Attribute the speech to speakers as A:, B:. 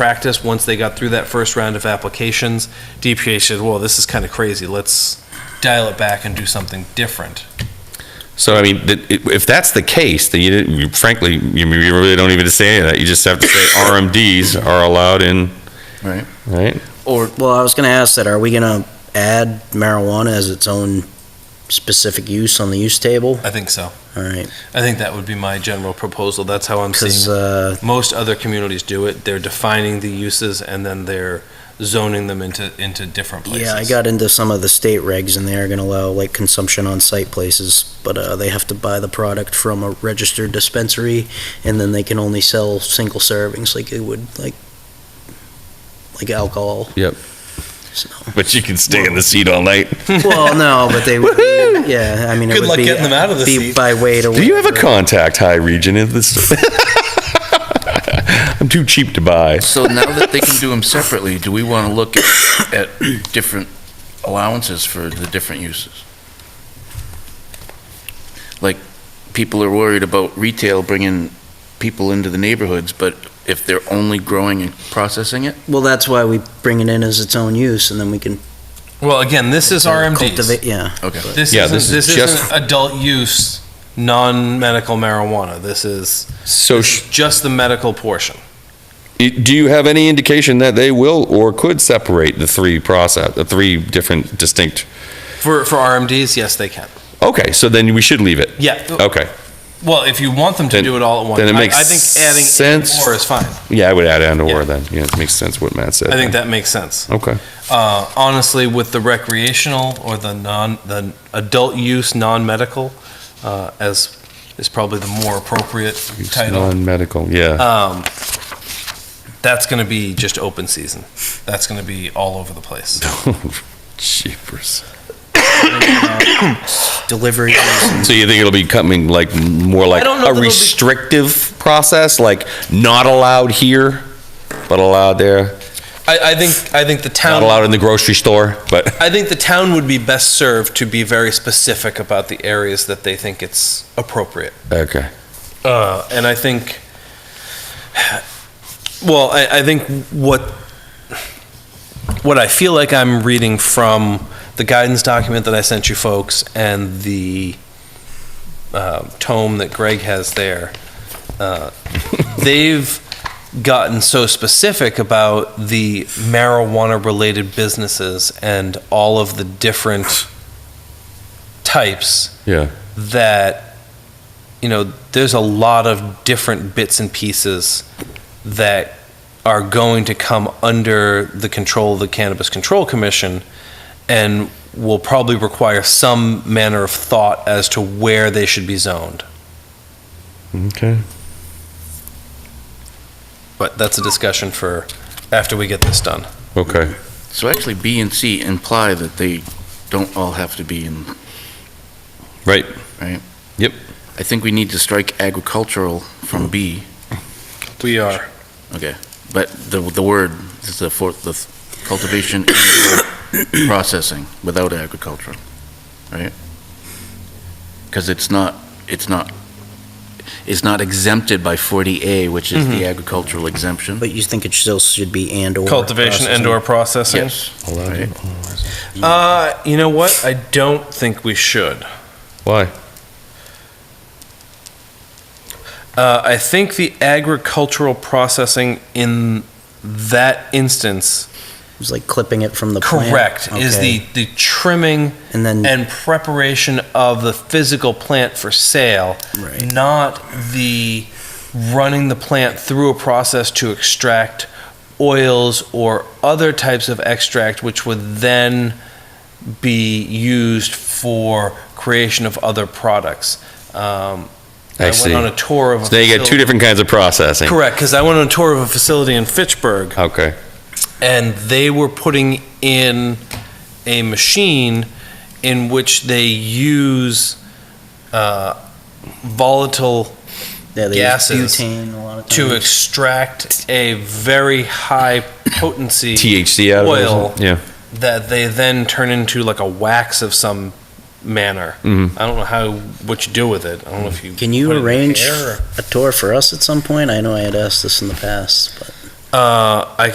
A: practice, once they got through that first round of applications, DPA said, well, this is kind of crazy, let's dial it back and do something different.
B: So I mean, that- it- if that's the case, then you didn't, you- frankly, you you really don't even say any of that. You just have to say RMDs are allowed in,
C: Right.
B: right?
D: Or, well, I was gonna ask that, are we gonna add marijuana as its own specific use on the use table?
A: I think so.
D: All right,
A: I think that would be my general proposal, that's how I'm
D: because,
A: seeing.
D: uh,
A: Most other communities do it, they're defining the uses and then they're zoning them into, into different places.
D: yeah, I got into some of the state regs and they are gonna allow like consumption on site places, but, uh, they have to buy the product from a registered dispensary and then they can only sell single servings like it would, like, like alcohol.
B: Yep.
D: So-
B: But you can stay in the seat all night.
D: Well, no, but they would, be- yeah, I mean, it
A: Good
D: would
A: luck
D: be.
A: getting them out of the
D: be
A: seat.
D: By way to.
B: Do you have a
D: whatever.
B: contact high region in this? I'm too cheap to buy.
C: So now that they can do them separately, do we want to look at, at different allowances for the different uses? Like, people are worried about retail bringing people into the neighborhoods, but if they're only growing and processing it?
D: Well, that's why we bring it in as its own use and then we can.
A: Well, again, this is RMDs.
D: cultivate- Yeah.
C: Okay.
A: This
B: Yeah,
A: isn't,
B: this
A: this,
B: is just-
A: isn't adult use, non-medical marijuana. This is
B: So sh-
A: just the medical portion.
B: i- do you have any indication that they will or could separate the three process, the three different distinct?
A: For, for RMDs, yes, they can.
B: Okay, so then we should leave it.
A: Yeah.
B: Okay.
A: Well, if you want them to
B: Then-
A: do it all at once,
B: then it
A: I-
B: makes
A: I, think adding
B: sense.
A: or is fine.
B: Yeah, I would add and
A: Yeah.
B: or then. Yeah, it makes sense what Matt said.
A: I think that makes sense.
B: Okay.
A: Uh, honestly, with the recreational or the non the adult use non-medical, uh, as is probably the more appropriate
B: It's
A: title.
B: Non-medical, yeah.
A: Um, that's going to be just open season. That's going to be all over the place.
B: Jeepers.
D: Delivery. is-
B: So you think it'll be coming like more like
A: don't know that
B: a
A: it'll be-
B: restrictive process, like not allowed here, but allowed there,
A: I, I think I think the
B: not
A: town
B: allowed in the grocery store, but
A: I think the town would be best served to be very specific about the areas that they think it's appropriate.
B: okay.
A: Uh, and I think, well, I, I think what what I feel like I'm reading from the guidance document that I sent you folks and the uh, tome that Greg has there, uh, they've gotten so specific about the marijuana-related businesses and all of the different types
B: Yeah.
A: that you know there's a lot of different bits and pieces that are going to come under the control of the cannabis control commission and will probably require some manner of thought as to where they should be zoned
B: Okay.
A: but that's a discussion for after we get this done
B: Okay.
C: So actually, B and C imply that they don't all have to be in,
B: Right.
C: I think we need to strike agricultural from B,
A: we are
C: but the, the word, is the fourth, the cultivation and processing without agricultural, right? Because it's not, it's not, it's not exempted by 40A, which is the agricultural exemption.
D: But you think it still should be and or.
A: cultivation
D: processing?
A: and or processing
C: Yes. Right.
A: uh, you know what i don't think we should
B: Why?
A: Uh, I think the agricultural processing in that instance,
D: It's like clipping it from the plant.
A: correct, is
D: Okay.
A: the, the trimming
D: And then,
A: and preparation of the physical plant for sale,
D: right,
A: not the running the plant through a process to extract oils or other types of extract, which would then be used for creation of other products. Um,
B: I see.
A: went on a tour of. a
B: So now you got two
A: facility-
B: different kinds of processing.
A: Correct, because I went on a tour of a facility in Fitchburg,
B: Okay.
A: and they were putting in a machine in which they use uh, volatile
D: yeah, they use
A: gases
D: butane a lot of
A: to
D: times.
A: extract a very high potency
B: THC out of it.
A: Oil.
B: Yeah.
A: that they then turn into like a wax of some manner.
B: Mhm.
A: I don't know how what you do with it. I don't know if you
D: Can you
A: put it in the
D: arrange
A: air or-
D: a tour for us at some point? I know I had asked this in the past, but
A: Uh, I